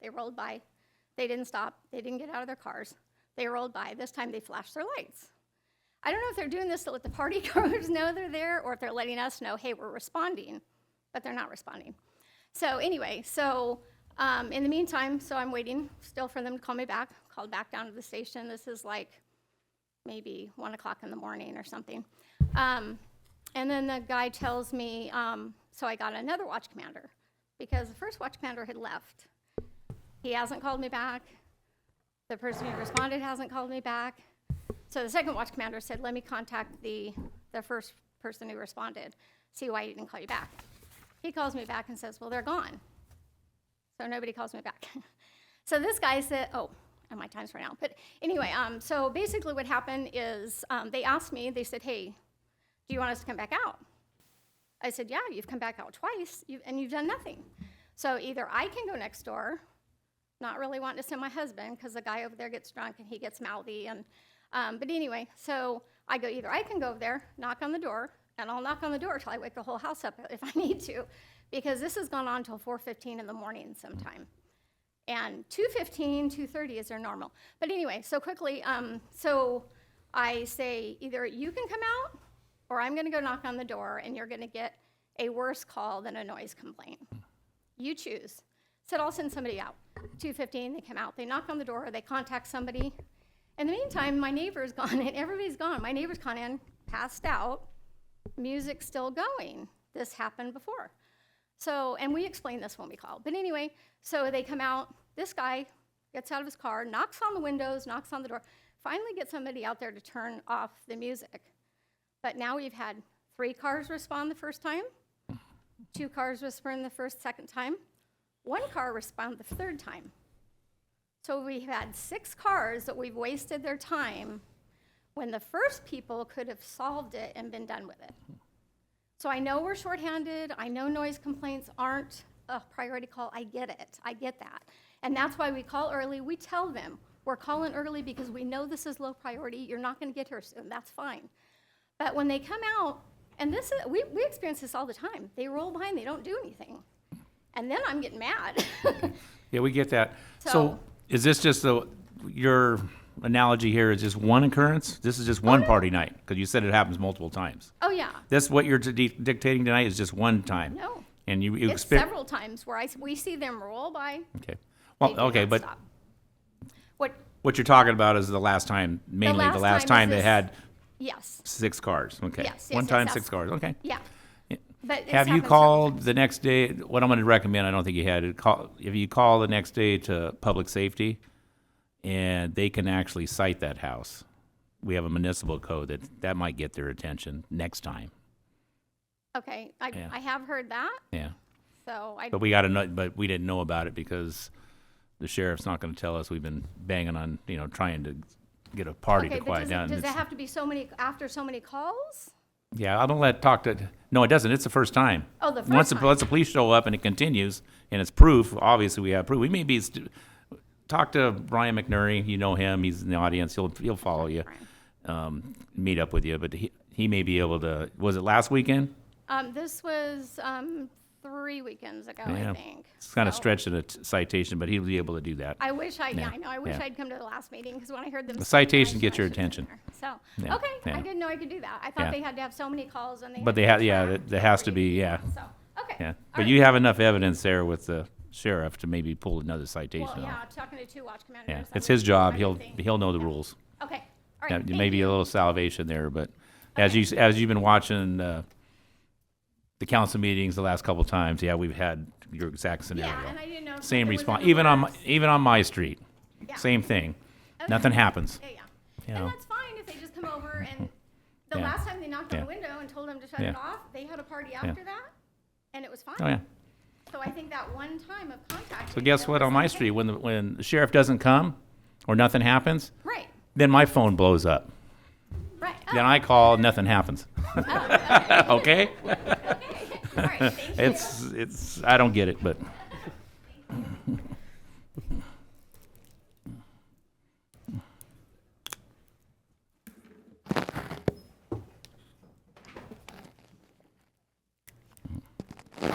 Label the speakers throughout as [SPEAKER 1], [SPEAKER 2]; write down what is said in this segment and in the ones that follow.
[SPEAKER 1] They rolled by. They didn't stop. They didn't get out of their cars. They rolled by. This time they flashed their lights. I don't know if they're doing this to let the party goers know they're there or if they're letting us know, hey, we're responding, but they're not responding. So anyway, so um, in the meantime, so I'm waiting still for them to call me back. Called back down to the station. This is like maybe one o'clock in the morning or something. Um, and then the guy tells me, um, so I got another watch commander because the first watch commander had left. He hasn't called me back. The person who responded hasn't called me back. So the second watch commander said, let me contact the, the first person who responded, see why he didn't call you back. He calls me back and says, well, they're gone. So nobody calls me back. so this guy said, oh, and my time's run out. But anyway, um, so basically what happened is um, they asked me, they said, hey, do you want us to come back out? I said, yeah, you've come back out twice you, and you've done nothing. So either I can go next door, not really wanting to send my husband because the guy over there gets drunk and he gets mouthy. And, um, but anyway, so I go, either I can go over there, knock on the door, and I'll knock on the door till I wake the whole house up if I need to, because this has gone on till 4.15 in the morning sometime and 2.15 2.30 is their normal but anyway so quickly um, so i say either you can come out or i'm going to go knock on the door and you're going to get a worse call than a noise complaint you choose said i'll send somebody out 2.15 they come out they knock on the door they contact somebody in the meantime my neighbor's gone and everybody's gone my neighbor's gone in passed out music's still going this happened before so, and we explained this when we called. But anyway, so they come out. This guy gets out of his car, knocks on the windows, knocks on the door, finally gets somebody out there to turn off the music. But now we've had three cars respond the first time, two cars respond the first, second time, one car respond the third time. So we've had six cars that we've wasted their time when the first people could have solved it and been done with it. So I know we're shorthanded, I know noise complaints aren't a priority call, I get it, I get that. And that's why we call early, we tell them, we're calling early because we know this is low priority, you're not gonna get here soon, that's fine. But when they come out, and this is, we, we experience this all the time, they roll by and they don't do anything. And then I'm getting mad.
[SPEAKER 2] Yeah, we get that. So
[SPEAKER 1] So-
[SPEAKER 2] is this just the, your analogy here is just one occurrence? This is just one party night? Because you said it happens multiple times.
[SPEAKER 1] Oh, yeah.
[SPEAKER 2] That's what you're di- dictating tonight is just one time?
[SPEAKER 1] No.
[SPEAKER 2] And you you
[SPEAKER 1] It's
[SPEAKER 2] expect?
[SPEAKER 1] several times where I, s- we see them roll by.
[SPEAKER 2] Okay.
[SPEAKER 1] they
[SPEAKER 2] Well,
[SPEAKER 1] do
[SPEAKER 2] okay,
[SPEAKER 1] not
[SPEAKER 2] but
[SPEAKER 1] stop. What,
[SPEAKER 2] what you're talking about is the last time, mainly the
[SPEAKER 1] last
[SPEAKER 2] last
[SPEAKER 1] time
[SPEAKER 2] time
[SPEAKER 1] is
[SPEAKER 2] they
[SPEAKER 1] this-
[SPEAKER 2] had
[SPEAKER 1] yes,
[SPEAKER 2] six cars, okay?
[SPEAKER 1] Yes, yes,
[SPEAKER 2] One
[SPEAKER 1] yes,
[SPEAKER 2] time,
[SPEAKER 1] yes.
[SPEAKER 2] six cars, okay.
[SPEAKER 1] yeah. But it's
[SPEAKER 2] Have you
[SPEAKER 1] happened several
[SPEAKER 2] called the next day, what I'm gonna recommend, I don't think you had, it, call, if you call the next day to public safety, and they can actually cite that house. We have a municipal code that, that might get their attention next time,
[SPEAKER 1] Okay, I,
[SPEAKER 2] Yeah.
[SPEAKER 1] I have heard that,
[SPEAKER 2] yeah.
[SPEAKER 1] so I,
[SPEAKER 2] But we gotta know, but we didn't know about it because the sheriff's not gonna tell us, we've been banging on, you know, trying to get a party
[SPEAKER 1] okay,
[SPEAKER 2] to
[SPEAKER 1] but
[SPEAKER 2] quiet
[SPEAKER 1] does
[SPEAKER 2] down.
[SPEAKER 1] it, does it
[SPEAKER 2] It's-
[SPEAKER 1] have to be so many, after so many calls?
[SPEAKER 2] Yeah, I don't let talk to, no, it doesn't, it's the first time.
[SPEAKER 1] Oh, the
[SPEAKER 2] Once,
[SPEAKER 1] first
[SPEAKER 2] the-
[SPEAKER 1] time.
[SPEAKER 2] once the police show up and it continues, and it's proof, obviously we have proof, we may be, st- talk to Brian McNary, you know him, he's in the audience, he'll, he'll follow you, um, meet up with you, but he, he may be able to, was it last weekend?
[SPEAKER 1] Um, this was, um, three weekends ago,
[SPEAKER 2] Yeah.
[SPEAKER 1] I think.
[SPEAKER 2] It's kind of
[SPEAKER 1] so-
[SPEAKER 2] stretching a t- citation, but he'll be able to do that.
[SPEAKER 1] I wish I, yeah,
[SPEAKER 2] Yeah,
[SPEAKER 1] I know, I wish
[SPEAKER 2] yeah.
[SPEAKER 1] I'd come to the last meeting, because when I heard them.
[SPEAKER 2] The
[SPEAKER 1] say that, I
[SPEAKER 2] citation
[SPEAKER 1] knew
[SPEAKER 2] gets
[SPEAKER 1] I
[SPEAKER 2] your
[SPEAKER 1] should have
[SPEAKER 2] attention.
[SPEAKER 1] been there. So,
[SPEAKER 2] Yeah,
[SPEAKER 1] okay,
[SPEAKER 2] yeah.
[SPEAKER 1] I didn't know I could do that. I
[SPEAKER 2] Yeah.
[SPEAKER 1] thought they had to have so many calls and they.
[SPEAKER 2] But they
[SPEAKER 1] to
[SPEAKER 2] ha- yeah,
[SPEAKER 1] track
[SPEAKER 2] that- that has to
[SPEAKER 1] every-
[SPEAKER 2] be, yeah.
[SPEAKER 1] So, okay.
[SPEAKER 2] Yeah,
[SPEAKER 1] all
[SPEAKER 2] but
[SPEAKER 1] right.
[SPEAKER 2] you have enough evidence there with the sheriff to maybe pull another citation
[SPEAKER 1] Well,
[SPEAKER 2] off.
[SPEAKER 1] yeah, talking to two watch commanders.
[SPEAKER 2] Yeah,
[SPEAKER 1] I'm
[SPEAKER 2] it's his
[SPEAKER 1] gonna do
[SPEAKER 2] job,
[SPEAKER 1] my
[SPEAKER 2] he'll,
[SPEAKER 1] thing.
[SPEAKER 2] he'll know the rules.
[SPEAKER 1] Okay, all
[SPEAKER 2] Yeah,
[SPEAKER 1] right. thank
[SPEAKER 2] maybe
[SPEAKER 1] you.
[SPEAKER 2] a little salvation there, but as
[SPEAKER 1] Okay.
[SPEAKER 2] you, as you've been watching, uh, the council meetings the last couple times, yeah, we've had your exact
[SPEAKER 1] Yeah, and
[SPEAKER 2] scenario.
[SPEAKER 1] I didn't know. if
[SPEAKER 2] Same
[SPEAKER 1] it was in
[SPEAKER 2] response,
[SPEAKER 1] the
[SPEAKER 2] even on, my-
[SPEAKER 1] works.
[SPEAKER 2] even on my street,
[SPEAKER 1] Yeah.
[SPEAKER 2] same thing.
[SPEAKER 1] Okay.
[SPEAKER 2] Nothing happens.
[SPEAKER 1] Yeah, yeah.
[SPEAKER 2] You
[SPEAKER 1] And
[SPEAKER 2] know.
[SPEAKER 1] that's fine if they just come over and the
[SPEAKER 2] Yeah.
[SPEAKER 1] last time they knocked on the
[SPEAKER 2] Yeah.
[SPEAKER 1] window and told them to shut
[SPEAKER 2] Yeah.
[SPEAKER 1] it off, they had a party after that and it was fine.
[SPEAKER 2] Oh, yeah.
[SPEAKER 1] So I think that one time of contact.
[SPEAKER 2] So guess what, on my street, when, the when the sheriff doesn't come or nothing happens,
[SPEAKER 1] Right,
[SPEAKER 2] then my phone blows up.
[SPEAKER 1] right.
[SPEAKER 2] Then I call, nothing happens.
[SPEAKER 1] Oh,
[SPEAKER 2] Okay?
[SPEAKER 1] All right, thank you.
[SPEAKER 2] It's, it's, I don't get it, but.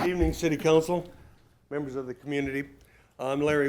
[SPEAKER 3] Evening, City Council, members of the community. I'm Larry